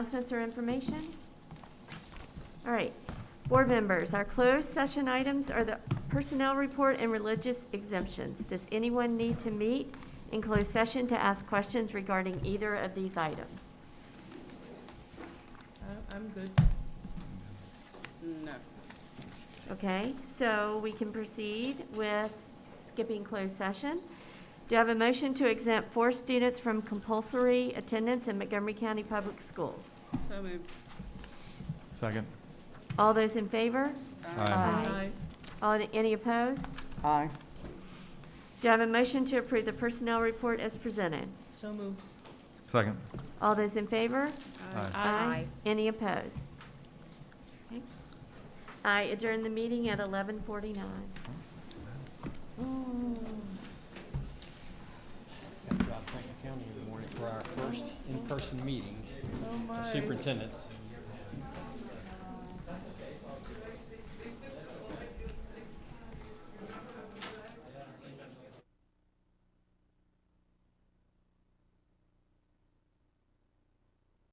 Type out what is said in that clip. Announcements or information? All right, board members, our closed session items are the personnel report and religious exemptions. Does anyone need to meet in closed session to ask questions regarding either of these items? I- I'm good. No. Okay, so we can proceed with skipping closed session. Do you have a motion to exempt four students from compulsory attendance in Montgomery County Public Schools? So moved. Second. All those in favor? Aye. Aye. All, any opposed? Aye. Do I have a motion to approve the personnel report as presented? So moved. Second. All those in favor? Aye. Any opposed? Okay. I adjourn the meeting at 11:49. Got to thank the county in the morning for our first in-person meeting, Oh, my. superintendents.